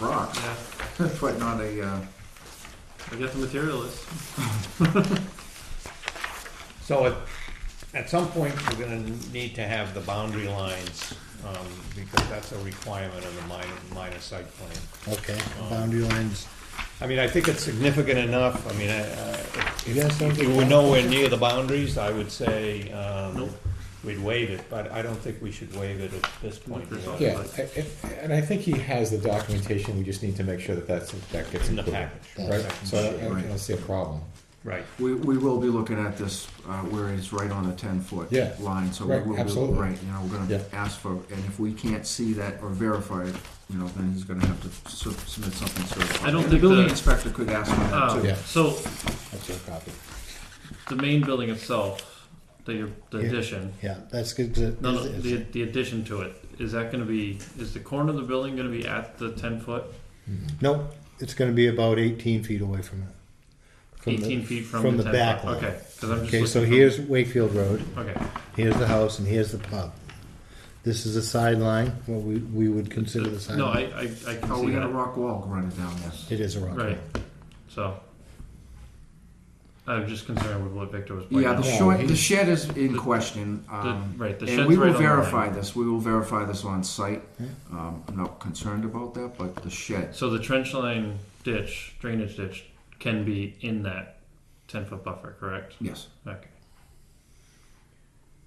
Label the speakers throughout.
Speaker 1: rock,
Speaker 2: Yeah,
Speaker 1: but not a, uh,
Speaker 2: I get the materialist.
Speaker 3: So at, at some point, we're gonna need to have the boundary lines, um, because that's a requirement of the minor, minor site plan. Um,
Speaker 4: Okay, boundary lines.
Speaker 3: I mean, I think it's significant enough, I mean, I, I,
Speaker 4: You got
Speaker 3: if we
Speaker 4: something?
Speaker 3: were nowhere near the boundaries, I would say, um,
Speaker 2: Nope.
Speaker 3: we'd waive it, but I don't think we should waive it at this point. you know,
Speaker 5: Yeah, I- I- and I think he has the documentation, we just need to make sure that that's, that gets
Speaker 3: In the
Speaker 5: included.
Speaker 3: package,
Speaker 5: Right, so I don't- I
Speaker 1: Right.
Speaker 5: don't see a problem.
Speaker 3: right,
Speaker 1: we, we will be looking at this, uh, where it's right on the ten foot
Speaker 5: Yeah.
Speaker 1: line, so we
Speaker 5: Right,
Speaker 1: will be,
Speaker 5: absolutely.
Speaker 1: right, you know, we're gonna
Speaker 5: Yeah.
Speaker 1: ask for, and if we can't see that or verify it, you know, then he's gonna have to su- submit something certified.
Speaker 2: I don't
Speaker 1: And
Speaker 2: think
Speaker 1: The building
Speaker 2: the-
Speaker 1: inspector could ask for that
Speaker 2: Um,
Speaker 1: too.
Speaker 5: Yeah.
Speaker 2: So
Speaker 5: That's your copy.
Speaker 2: the main building itself, the, your- the
Speaker 4: Yeah.
Speaker 2: addition,
Speaker 4: Yeah, that's good.
Speaker 2: no, no, the, the addition to it, is that gonna be, is the corner of the building gonna be at the ten foot?
Speaker 4: No, it's gonna be about eighteen feet away from it. From the-
Speaker 2: Eighteen feet from the ten
Speaker 4: from the
Speaker 2: foot?
Speaker 4: back line.
Speaker 2: Okay, 'cause I'm just
Speaker 4: Okay, so
Speaker 2: looking
Speaker 4: here's Wakefield Road,
Speaker 2: from- Okay,
Speaker 4: here's the house, and here's the pub. This is a sideline, what we, we would consider the
Speaker 2: no, I,
Speaker 4: sideline.
Speaker 2: I, I can
Speaker 1: Oh,
Speaker 2: see
Speaker 1: we got a
Speaker 2: that,
Speaker 1: rock wall running down this.
Speaker 4: It is a rock.
Speaker 2: right, so. I'm just concerned with what Victor was pointing
Speaker 1: Yeah, the
Speaker 2: out.
Speaker 4: Yeah,
Speaker 1: short, the
Speaker 4: he's-
Speaker 1: shed is in
Speaker 2: The-
Speaker 1: question, um,
Speaker 2: The- Right, the shed's right
Speaker 1: And we will
Speaker 2: on the line.
Speaker 1: verify this, we will verify this on site.
Speaker 4: Yeah.
Speaker 1: Um, I'm not concerned about that, but the shed,
Speaker 2: So the trench line ditch, drainage ditch, can be in that ten foot buffer, correct?
Speaker 1: yes.
Speaker 2: Okay.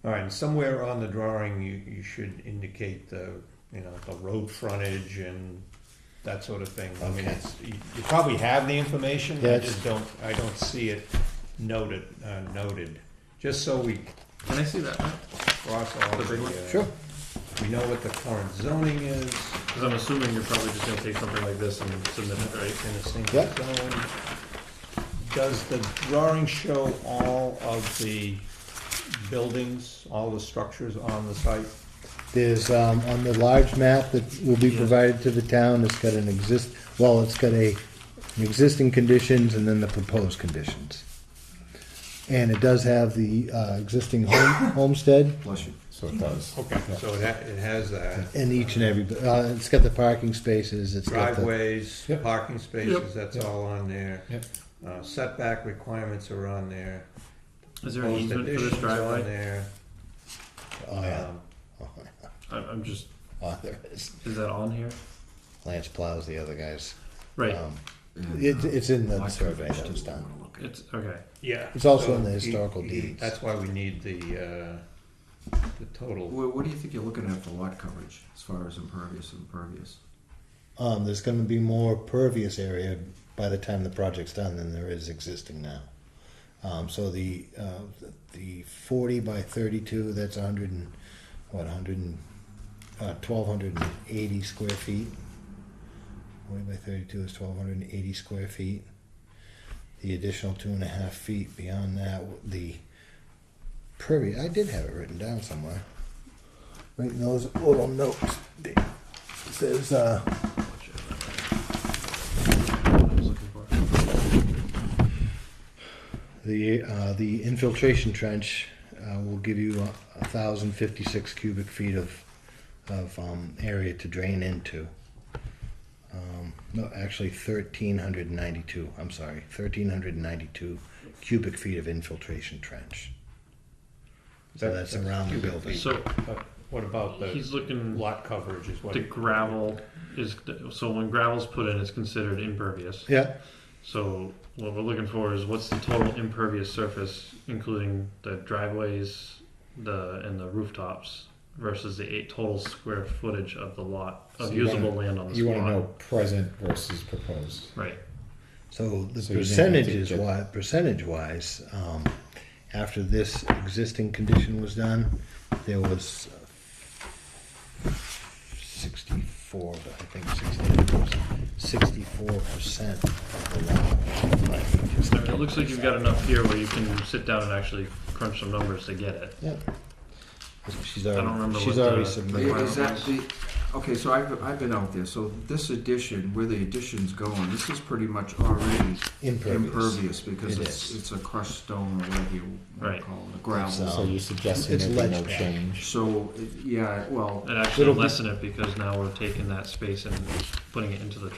Speaker 3: all right, and somewhere on the drawing, you, you should indicate the, you know, the road frontage and that sort of thing. I mean,
Speaker 4: Okay.
Speaker 3: it's, you you probably have the information, I
Speaker 4: Yes.
Speaker 3: just don't, I don't see it noted, uh, noted, just so we
Speaker 2: Can I see that?
Speaker 3: cross all
Speaker 2: The big one?
Speaker 3: the, uh, we know what the current zoning is,
Speaker 2: Because I'm assuming you're probably just gonna take something like this and submit it, right?
Speaker 3: in a single
Speaker 4: Yep.
Speaker 3: zone. Does the drawing show all of the buildings, all the structures on the site?
Speaker 4: There's, um, on the large map that will be
Speaker 2: Yeah.
Speaker 4: provided to the town, it's got an exist, well, it's got a, an existing conditions and then the proposed conditions. And it does have the, uh, existing home, homestead
Speaker 1: Bless you.
Speaker 5: So it does.
Speaker 3: Okay, so it ha- it has that.
Speaker 4: and each and every, uh, it's got the parking spaces, it's got the.
Speaker 3: Driveways,
Speaker 5: Yep.
Speaker 3: parking spaces, that's
Speaker 5: Yep.
Speaker 3: all on there.
Speaker 5: Yep.
Speaker 3: Uh, setback requirements are on there.
Speaker 2: Is there an
Speaker 3: Proposed
Speaker 2: easement for this
Speaker 3: additions on
Speaker 2: driveway?
Speaker 3: there.
Speaker 4: Oh, yeah.
Speaker 3: Um,
Speaker 4: Oh,
Speaker 2: I'm, I'm just,
Speaker 4: oh, there it is.
Speaker 2: is that on here?
Speaker 4: Lance plows the other guys.
Speaker 2: Right,
Speaker 4: Um, It, it's in the survey that was done.
Speaker 2: it's, okay.
Speaker 3: Yeah.
Speaker 4: It's also
Speaker 3: so
Speaker 4: in the
Speaker 3: he-
Speaker 4: historical
Speaker 3: he-
Speaker 4: deeds.
Speaker 3: That's why we need the, uh, the total.
Speaker 1: What, what do you think you're looking at for lot coverage as far as impervious and pervious?
Speaker 4: Um, there's gonna be more pervious area by the time the project's done than there is existing now. Um, so the, uh, the forty by thirty-two, that's hundred and, what, hundred and, uh, twelve hundred and eighty square feet. Forty by thirty-two is twelve hundred and eighty square feet. The additional two and a half feet beyond that, the pervious, I did have it written down somewhere. Right in those little notes, it says, uh,
Speaker 2: What I was looking for.
Speaker 4: The, uh, the infiltration trench, uh, will give you a thousand fifty-six cubic feet of, of, um, area to drain into. Um, no, actually thirteen hundred and ninety-two, I'm sorry, thirteen hundred and ninety-two cubic feet of infiltration trench. So
Speaker 3: That-
Speaker 4: that's around the
Speaker 3: cubic
Speaker 4: building.
Speaker 2: So
Speaker 3: But What about the
Speaker 2: he's looking,
Speaker 3: lot coverage is what?
Speaker 2: the gravel is, so when gravel's put in, it's considered impervious.
Speaker 4: Yeah,
Speaker 2: So what we're looking for is what's the total impervious surface, including the driveways, the, and the rooftops versus the eight total square footage of the lot, of
Speaker 5: So you wanna-
Speaker 2: usable land on this
Speaker 5: You wanna know
Speaker 2: lot.
Speaker 5: present versus proposed.
Speaker 2: Right,
Speaker 4: So the
Speaker 5: So you're saying that
Speaker 4: percentages
Speaker 5: the-
Speaker 4: wise, percentage wise, um, after this existing condition was done, there was sixty-four, I think sixty-four percent of the lot.
Speaker 2: I mean, it looks like you've got enough here where you can sit down and actually crunch some numbers to get it.
Speaker 4: Yep. She's
Speaker 2: don't remember
Speaker 4: already, she's
Speaker 2: what the-
Speaker 4: already
Speaker 2: the-
Speaker 4: submitted.
Speaker 1: Is that the, okay, so I've, I've been out there, so this addition, where the addition's going, this is pretty much already
Speaker 4: Impervious.
Speaker 1: impervious because
Speaker 4: It
Speaker 1: it's,
Speaker 4: is.
Speaker 1: it's a crushed stone or whatever you wanna
Speaker 2: Right.
Speaker 1: call it,
Speaker 4: It's,
Speaker 1: gravel.
Speaker 4: uh,
Speaker 5: So you're suggesting
Speaker 4: It's
Speaker 5: there'd be
Speaker 4: ledge
Speaker 5: no
Speaker 4: back.
Speaker 5: change?
Speaker 1: So, it- yeah, well,
Speaker 2: It actually
Speaker 4: Little bit-
Speaker 2: lessen it because now we're taking that space and putting it into the